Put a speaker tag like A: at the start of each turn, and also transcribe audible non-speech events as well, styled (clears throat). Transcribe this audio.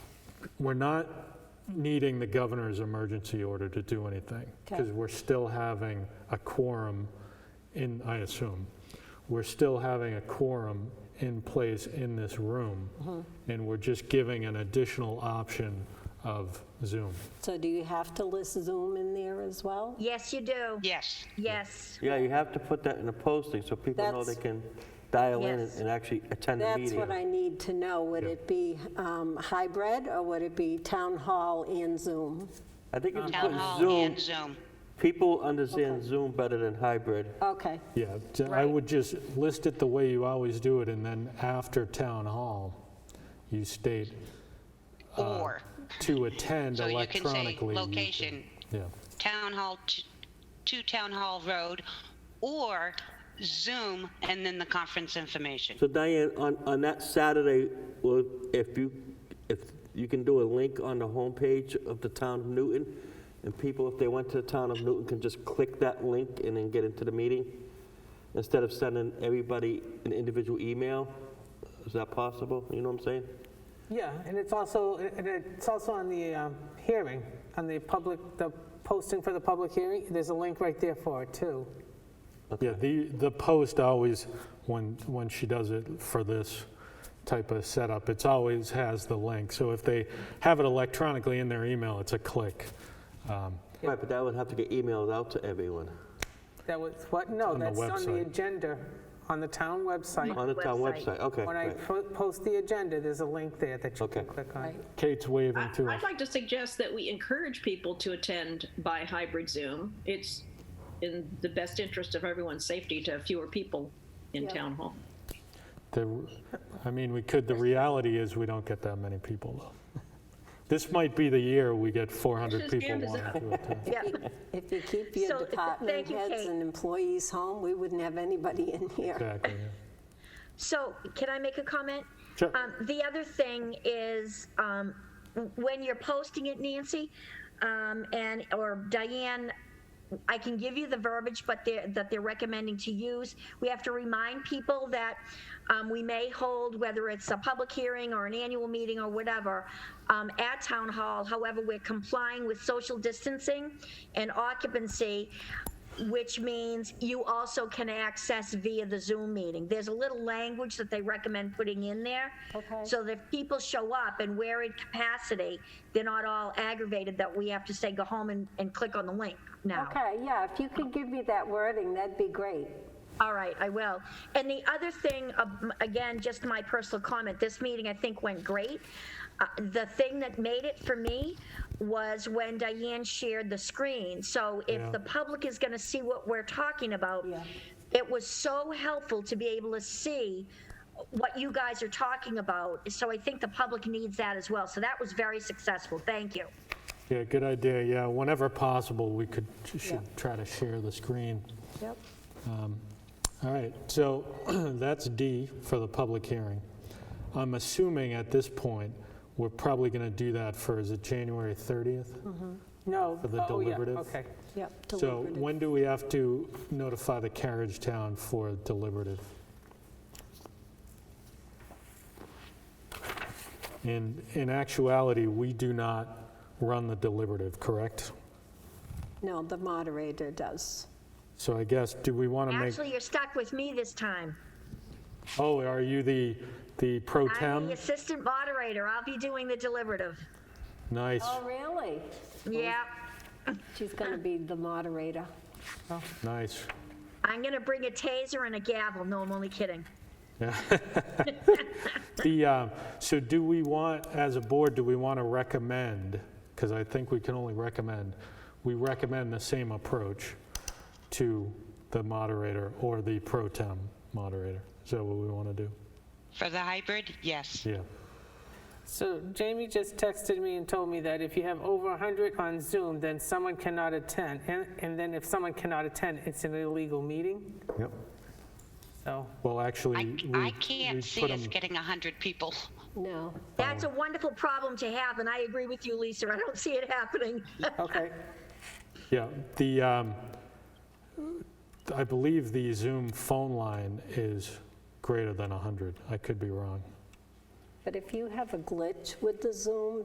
A: we're not needing the governor's emergency order to do anything.
B: Okay.
A: Because we're still having a quorum in, I assume, we're still having a quorum in place in this room.
C: Mm-hmm.
A: And we're just giving an additional option of Zoom.
B: So do you have to list Zoom in there as well?
D: Yes, you do.
C: Yes.
D: Yes.
E: Yeah, you have to put that in a posting so people know they
B: That's-
E: can dial in
D: Yes.
E: and actually attend the
B: That's
E: meeting.
B: what I need to know. Would it be um, hybrid or would it be town hall and Zoom?
E: I think if you
C: Town
E: put
C: hall
E: Zoom,
C: and Zoom.
E: people understand Zoom better than hybrid.
B: Okay,
A: Yeah, t- I would just list it the way you always do it, and then after town hall, you state uh,
C: Or,
A: to attend
C: (laughs) so you can
A: electronically.
C: say location,
A: Yeah,
C: Town Hall, t- 2 Town Hall Road, or Zoom, and then the conference information.
E: So Diane, on, on that Saturday, well, if you, if you can do a link on the homepage of the town of Newton, and people, if they went to the town of Newton, can just click that link and then get into the meeting, instead of sending everybody an individual email? Is that possible? You know what I'm saying?
F: Yeah, and it's also, and it's also on the um, hearing, on the public, the posting for the public hearing, there's a link right there for it, too.
A: yeah, the, the post always, when, when she does it for this type of setup, it's always has the link. So if they have it electronically in their email, it's a click. Um,
E: Right, but that would have to get emailed out to everyone,
F: That was, what, no,
A: On the
F: that's on the
A: website.
F: agenda, on the town website.
E: on the town
D: Website.
E: website, okay.
F: When I
E: right.
F: po- post the agenda, there's a link there that you can
E: Okay.
F: click on.
A: Kate's waving
G: I-
A: to us.
G: I'd like to suggest that we encourage people to attend by hybrid Zoom. It's in the best interest of everyone's safety to have fewer people in town hall.
A: The, I mean, we could, the reality is we don't get that many people though. This might be the year we get 400
G: Just
A: people
G: hand us
A: wanting
G: up.
A: to attend.
B: if you keep
D: So,
B: your
D: th-
B: department
D: thank you,
B: heads
D: Kate.
B: and employees home, we wouldn't have anybody in here.
A: Exactly. yeah.
D: So, can I make a comment?
A: Sure.
D: Um, the other thing is um, w- when you're posting it, Nancy um, and or Diane, I can give you the verbiage, but they're, that they're recommending to use. We have to remind people that um, we may hold, whether it's a public hearing or an annual meeting or whatever, um, at town hall. However, we're complying with social distancing and occupancy. which means you also can access via the Zoom meeting. There's a little language that they recommend putting in there.
B: Okay.
D: So that if people show up and we're in capacity, they're not all aggravated that we have to say, go home and, and click on the link now.
B: Okay, yeah, if you could give me that wording, that'd be great.
D: All right, I will. And the other thing, um, again, just my personal comment, this meeting I think went great. Uh, The thing that made it for me was when Diane shared the screen. So if the public is going to see what we're talking about, it was so helpful to be able to see what you guys are talking about. So I think the public needs that as well. So that was very successful. Thank you.
A: Yeah, good idea. Yeah, whenever possible, we could, should try to share the screen. Um,
B: Yep.
A: All right, so (clears throat) that's D for the public hearing. I'm assuming at this point, we're probably going to do that for, is it January 30th?
B: Hmm,
F: No,
A: For the
F: oh, yeah,
A: deliberative?
F: okay.
B: Yep.
A: So
B: deliberative.
A: when do we have to notify the carriage town for deliberative? In, in actuality, we do not run the deliberative, correct?
B: No, the moderator does.
A: So I guess, do we want to make,
D: Actually, you're stuck with me this time.
A: oh, are you the, the pro
D: I'm
A: tem?
D: the assistant moderator. I'll be doing the deliberative.
A: Nice,
B: Oh, really?
D: Yeah.
B: She's going to be the moderator.
A: nice.
D: I'm going to bring a taser and a gavel. No, I'm only kidding.
A: The, uh, so do we want, as a board, do we want to recommend, because I think we can only recommend, we recommend the same approach to the moderator or the pro tem moderator. Is that what we want to do?
C: For the hybrid, yes.
A: Yeah.
F: So Jamie just texted me and told me that if you have over 100 on Zoom, then someone cannot attend. And and then if someone cannot attend, it's an illegal meeting,
A: Yep.
F: so.
A: Well, actually,
C: I,
A: we-
C: I
A: we
C: can't see
A: put
C: us
A: 'em-
C: getting 100 people.
B: No.
D: That's a wonderful problem to have, and I agree with you, Lisa. I don't see it happening.
F: Okay,
A: Yeah, the, um, I believe the Zoom phone line is greater than 100. I could be wrong.
B: But if you have a glitch with the Zoom,